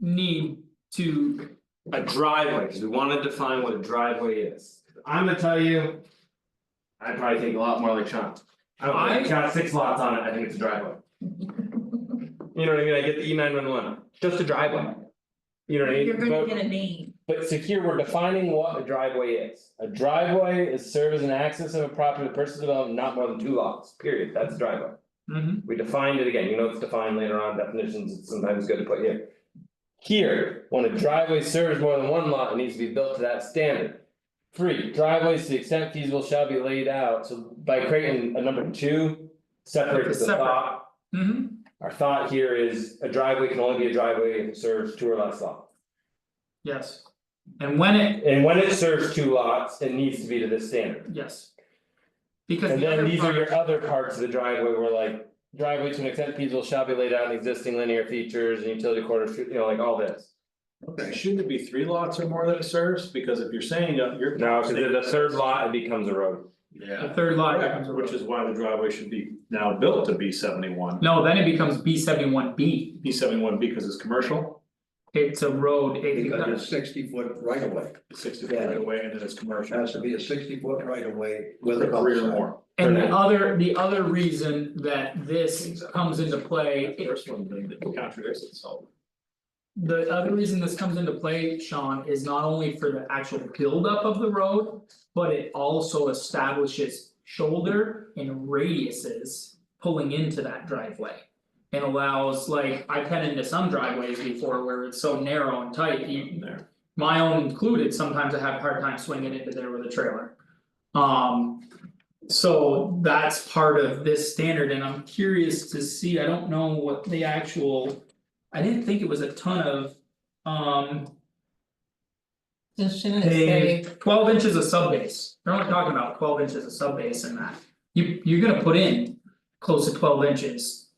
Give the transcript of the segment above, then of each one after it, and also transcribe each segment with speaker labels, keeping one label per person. Speaker 1: need to,
Speaker 2: A driveway, cause we wanna define what a driveway is, I'm gonna tell you. I'd probably think a lot more like Sean, I don't know,
Speaker 1: I-
Speaker 2: it's got six lots on it, I think it's a driveway. You know what I mean, I get the E nine one one, just a driveway. You know what I
Speaker 3: You're
Speaker 2: mean,
Speaker 3: gonna
Speaker 2: but
Speaker 3: get a name,
Speaker 2: but so here we're defining what a driveway is, a driveway is serves as an access of a property to purchase development, not more than two lots, period, that's a driveway.
Speaker 1: Mhm.
Speaker 2: We defined it again, you know, it's defined later on definitions, it's sometimes good to put here. Here, when a driveway serves more than one lot, it needs to be built to that standard. Three, driveways to the extent feasible shall be laid out, so by creating a number two, separates the
Speaker 1: Separate.
Speaker 2: thought.
Speaker 1: Mhm.
Speaker 2: Our thought here is a driveway can only be a driveway if it serves two or less lots.
Speaker 1: yes. And when it,
Speaker 2: And when it serves two lots, it needs to be to this standard.
Speaker 1: yes. Because
Speaker 2: And
Speaker 1: the
Speaker 2: then
Speaker 1: other
Speaker 2: these are
Speaker 1: part-
Speaker 2: your other parts of the driveway where like driveway to an extent feasible shall be laid out in existing linear features and utility corridors, you know, like all this.
Speaker 4: Okay, shouldn't it be three lots or more that it serves? Because if you're saying that you're.
Speaker 2: No, cause the the third lot, it becomes a road.
Speaker 4: Yeah.
Speaker 1: The third lot becomes a
Speaker 4: Correct,
Speaker 1: road.
Speaker 4: Which is why the driveway should be now built to B seventy one,
Speaker 1: No, then it becomes B seventy one B,
Speaker 4: B seventy one because it's commercial,
Speaker 1: it's a road, it
Speaker 5: Because it's sixty foot right of way,
Speaker 4: it's sixty
Speaker 5: Yeah.
Speaker 4: feet away and then it's commercial.
Speaker 5: has to be a sixty foot right of way
Speaker 4: For
Speaker 5: with a cul
Speaker 4: Three or more.
Speaker 1: And the
Speaker 2: Correct.
Speaker 1: other, the other reason that this comes into play,
Speaker 4: The First one, then it contradicts itself.
Speaker 1: the other reason this comes into play, Sean, is not only for the actual buildup of the road. But it also establishes shoulder and radiuses pulling into that driveway. And allows like, I've cut into some driveways before where it's so narrow and tight, you
Speaker 4: There,
Speaker 1: my own included, sometimes I have a hard time swinging into there with a trailer. Um, so that's part of this standard and I'm curious to see, I don't know what the actual. I didn't think it was a ton of, um,
Speaker 3: just shouldn't
Speaker 1: paved-
Speaker 3: say,
Speaker 1: twelve inches of sub base, they're only talking about twelve inches of sub base in that. You, you're gonna put in close to twelve inches.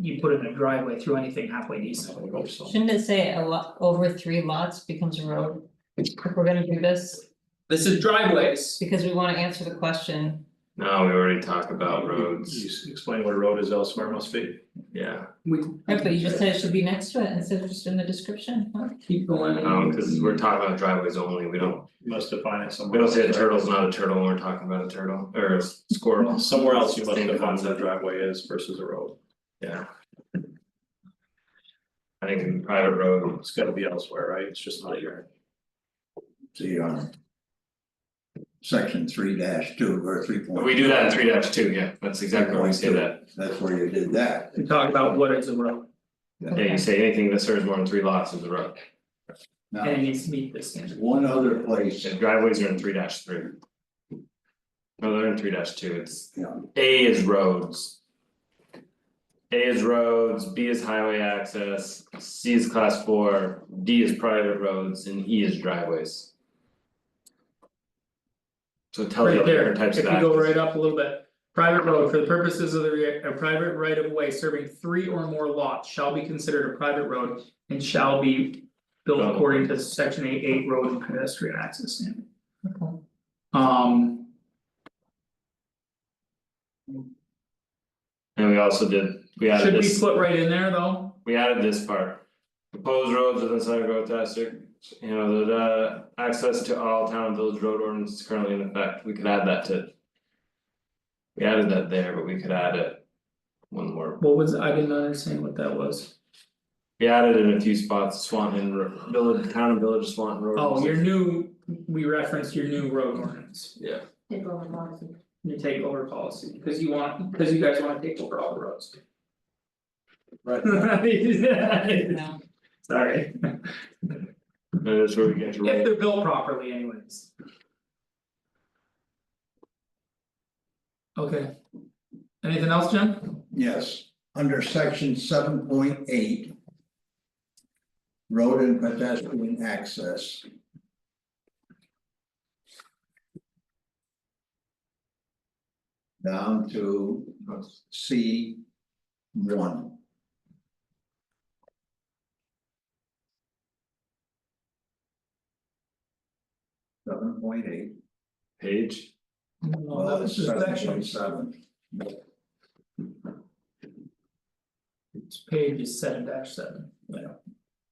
Speaker 1: You put in a driveway through anything halfway decent.
Speaker 4: I would hope so.
Speaker 3: shouldn't it say a lot, over three lots becomes a road? If we're gonna do this,
Speaker 1: This is driveways,
Speaker 3: because we wanna answer the question,
Speaker 2: No, we already talked
Speaker 4: You s- explain what a road is elsewhere must be.
Speaker 2: yeah,
Speaker 1: we
Speaker 3: right, but you just said it should be next to it instead of just in the description, huh?
Speaker 1: keep going.
Speaker 2: Um, cause we're talking about driveways only, we don't,
Speaker 4: You Must define it somewhere.
Speaker 2: we don't say a
Speaker 4: else.
Speaker 2: turtle's not a turtle when we're talking about a turtle, or a squirrel,
Speaker 4: Somewhere else you must
Speaker 2: Same
Speaker 4: define what a
Speaker 2: concept.
Speaker 4: driveway is versus a road.
Speaker 2: yeah. I think in private road,
Speaker 4: It's gotta be elsewhere, right? It's just not here.
Speaker 5: See, um. Section three dash two or three point.
Speaker 2: we do that in three dash two, yeah, that's exactly where we say that,
Speaker 5: That's where you did that.
Speaker 1: We talked about what is a road.
Speaker 2: yeah, you say anything that serves more than three lots is a road,
Speaker 1: And it
Speaker 5: Now,
Speaker 1: needs to meet this standard.
Speaker 5: one other place,
Speaker 2: and driveways are in three dash three. No, they're in three dash two, it's
Speaker 5: you know,
Speaker 2: A is roads. A is roads, B is highway access, C is class four, D is private roads, and E is driveways. So it tells you
Speaker 1: Right
Speaker 2: all the
Speaker 1: there,
Speaker 2: different types
Speaker 1: if you
Speaker 2: of
Speaker 1: go right
Speaker 2: access,
Speaker 1: up a little bit, private road for the purposes of the re- a private right of way serving three or more lots shall be considered a private road. And shall be built
Speaker 2: Oh.
Speaker 1: according to section eight eight road and pedestrian access standard,
Speaker 3: Okay.
Speaker 1: um.
Speaker 2: and we also did, we added
Speaker 1: Should we
Speaker 2: this,
Speaker 1: put right in there though?
Speaker 2: we added this part. Proposed roads within Sutter Grove district, you know, the uh, access to all town and village road ordinance is currently in effect, we could add that to. We added that there, but we could add it. One more
Speaker 1: What was, I didn't understand what that was.
Speaker 2: We added in a few spots, Swanton, Ro- Village, Town and Village, Swanton Road.
Speaker 1: Oh, your new, we referenced your new road ordinance,
Speaker 2: Yeah,
Speaker 1: your takeover policy, because you want, because you guys wanna take over all the roads.
Speaker 5: right,
Speaker 3: No,
Speaker 1: Sorry.
Speaker 2: that is where we get to
Speaker 1: If
Speaker 2: roll.
Speaker 1: they're built properly anyways. Okay. Anything else, Jen?
Speaker 5: yes, under section seven point eight. Road and pedestrian access. Down to C one. Seven point eight,
Speaker 2: Page,
Speaker 1: No,
Speaker 5: well, it's seven point seven,
Speaker 1: Page is seven dash seven.
Speaker 5: Yeah.